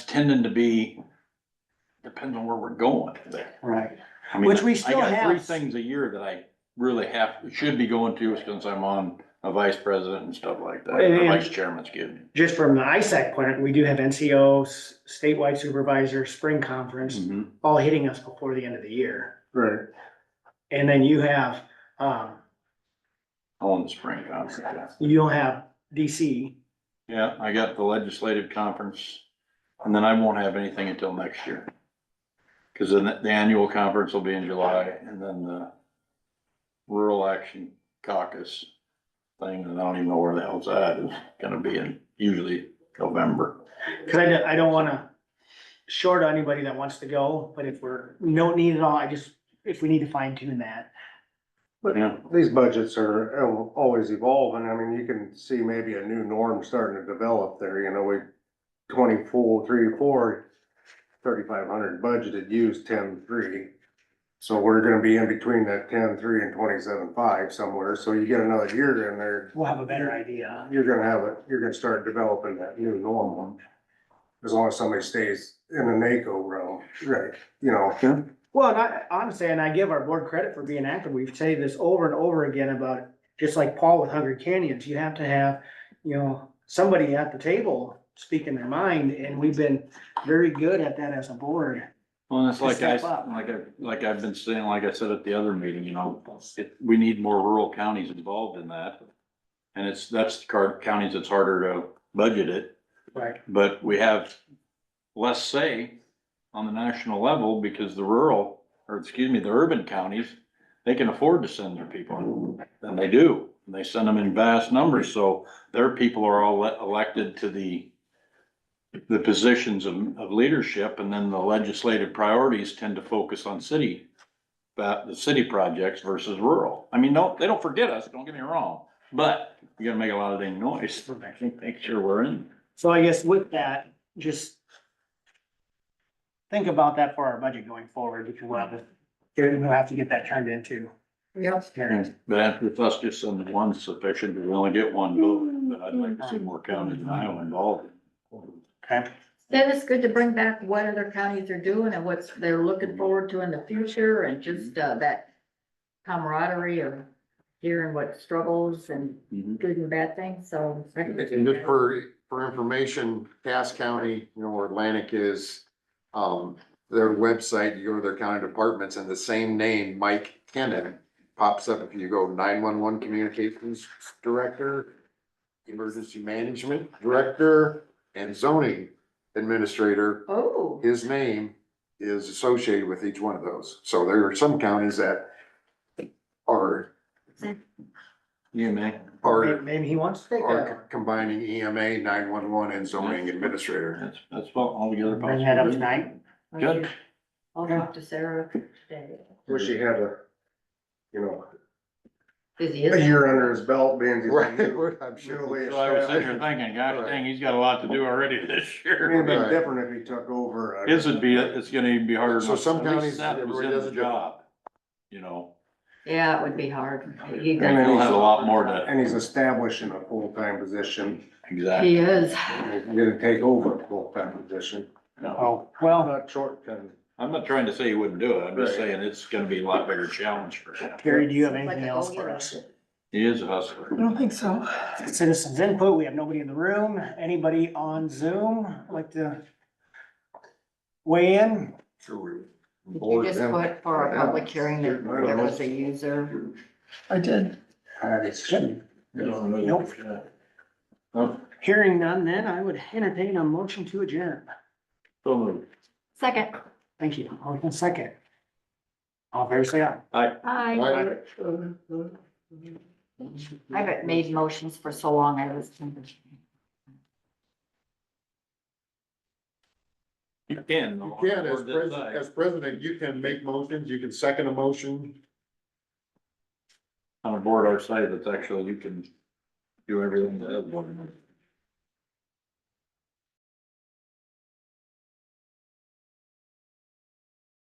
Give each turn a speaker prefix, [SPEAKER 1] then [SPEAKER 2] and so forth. [SPEAKER 1] tending to be, depends on where we're going there.
[SPEAKER 2] Right,
[SPEAKER 1] I mean,
[SPEAKER 2] Which we
[SPEAKER 1] I
[SPEAKER 2] still
[SPEAKER 1] got Three
[SPEAKER 2] have.
[SPEAKER 1] things a year that I really have, should be going to since I'm on a vice president and stuff like that, or
[SPEAKER 2] And-
[SPEAKER 1] vice chairman's good.
[SPEAKER 2] just from the ISAC point, we do have NCOs, statewide supervisor, spring conference,
[SPEAKER 1] Hmm.
[SPEAKER 2] all hitting us before the end of the year.
[SPEAKER 1] Right.
[SPEAKER 2] And then you have, um,
[SPEAKER 1] All in the spring conference, yeah.
[SPEAKER 2] you'll have DC,
[SPEAKER 1] yeah, I got the legislative conference, and then I won't have anything until next year. Cause then the annual conference will be in July, and then the rural action caucus thing, and I don't even know where the hell's that is gonna be in, usually November.
[SPEAKER 2] cause I don't, I don't wanna short on anybody that wants to go, but if we're, we don't need it all, I just, if we need to fine tune that.
[SPEAKER 1] But yeah,
[SPEAKER 3] These budgets are al- always evolving. I mean, you can see maybe a new norm starting to develop there, you know, we twenty-four, three, four, thirty-five hundred budgeted, used ten-three. So we're gonna be in between that ten-three and twenty-seven-five somewhere, so you get another year in there,
[SPEAKER 2] We'll have a better idea.
[SPEAKER 3] you're gonna have it, you're gonna start developing that new norm. As long as somebody stays in the NACO realm, right, you know,
[SPEAKER 2] Well, and I, honestly, and I give our board credit for being active, we've said this over and over again about, just like Paul with Hunger Canyons, you have to have, you know, somebody at the table speaking their mind, and we've been very good at that as a board.
[SPEAKER 1] Well, it's
[SPEAKER 2] To
[SPEAKER 1] like I,
[SPEAKER 2] step up.
[SPEAKER 1] like I, like I've been saying, like I said at the other meeting, you know, it, we need more rural counties involved in that. And it's, that's the car, counties that's harder to budget it,
[SPEAKER 2] Right.
[SPEAKER 1] but we have less say on the national level because the rural, or excuse me, the urban counties, they can afford to send their people, and they do. And they send them in vast numbers, so their people are all le- elected to the the positions of, of leadership, and then the legislative priorities tend to focus on city, that, the city projects versus rural. I mean, no, they don't forget us, don't get me wrong, but you gotta make a lot of dang noise, make sure we're in.
[SPEAKER 2] So I guess with that, just think about that for our budget going forward, if you want to, we'll have to get that turned into. Yep.
[SPEAKER 1] But with us just sending one sufficient, we only get one vote,
[SPEAKER 2] Mm-hmm.
[SPEAKER 1] but I'd like to see more counties in Iowa involved.
[SPEAKER 2] Okay,
[SPEAKER 4] Then it's good to bring back what other counties are doing and what's they're looking forward to in the future and just uh, that camaraderie of hearing what struggles and
[SPEAKER 5] Mm-hmm.
[SPEAKER 1] Mhm.
[SPEAKER 4] good and bad things, so.
[SPEAKER 5] And and just for, for information, Cass County, you know, where Atlantic is, um, their website, you go to their county departments and the same name, Mike Kennan, pops up if you go nine-one-one communications director, emergency management director, and zoning administrator.
[SPEAKER 4] Oh,
[SPEAKER 5] His name is associated with each one of those. So there are some counties that are,
[SPEAKER 1] You, man.
[SPEAKER 5] are
[SPEAKER 2] maybe he wants to take
[SPEAKER 5] are
[SPEAKER 2] that,
[SPEAKER 5] combining E EMA, nine-one-one, and zoning administrator.
[SPEAKER 1] That's, that's all altogether
[SPEAKER 2] one. bring that up
[SPEAKER 1] possible.
[SPEAKER 2] tonight.
[SPEAKER 1] Good.
[SPEAKER 4] I'll talk to Sarah today.
[SPEAKER 3] wish you had a, you know,
[SPEAKER 4] Busy,
[SPEAKER 3] a
[SPEAKER 4] isn't he?
[SPEAKER 3] year under his belt, being.
[SPEAKER 5] Right, I'm sure.
[SPEAKER 1] So I was sitting here thinking, gosh dang, he's got a lot to do already this
[SPEAKER 3] It
[SPEAKER 1] year.
[SPEAKER 3] would have
[SPEAKER 5] Right.
[SPEAKER 3] been different if he took over.
[SPEAKER 1] His would be, it's gonna even be harder.
[SPEAKER 5] So some
[SPEAKER 1] At least
[SPEAKER 5] counties,
[SPEAKER 1] That
[SPEAKER 5] it
[SPEAKER 1] was
[SPEAKER 5] really
[SPEAKER 1] in the
[SPEAKER 5] doesn't differ.
[SPEAKER 1] job, you know,
[SPEAKER 4] Yeah, it would be hard. He
[SPEAKER 1] and
[SPEAKER 4] does-
[SPEAKER 1] he'll have a lot more to,
[SPEAKER 3] And he's establishing a full-time position,
[SPEAKER 1] exactly.
[SPEAKER 4] He is.
[SPEAKER 3] he's gonna take over a full-time position,
[SPEAKER 1] No.
[SPEAKER 2] Oh, well,
[SPEAKER 3] not short-term.
[SPEAKER 1] I'm not trying to say he wouldn't do it, I'm just
[SPEAKER 3] Right.
[SPEAKER 1] saying it's gonna be a lot bigger challenge for him.
[SPEAKER 2] Carrie, do you have
[SPEAKER 4] Like
[SPEAKER 2] anything
[SPEAKER 4] a
[SPEAKER 2] else for
[SPEAKER 4] go-getter.
[SPEAKER 2] us?
[SPEAKER 1] He is a hustler.
[SPEAKER 2] Citizens input, we have nobody in the room, anybody on Zoom like to weigh in?
[SPEAKER 4] Did you just put for a public hearing that there was a user?
[SPEAKER 6] I did.
[SPEAKER 3] Uh,
[SPEAKER 2] Nope. Hearing none, then I would entertain a motion to adjourn.
[SPEAKER 1] So moved.
[SPEAKER 4] Second.
[SPEAKER 2] Thank you. Hold on a second. All fair say aye.
[SPEAKER 4] Hi. I haven't made motions for so long, I was.
[SPEAKER 1] You can.
[SPEAKER 5] You can, as president, as president, you can make motions, you can second a motion.
[SPEAKER 1] On a board our size, it's actually, you can do everything that.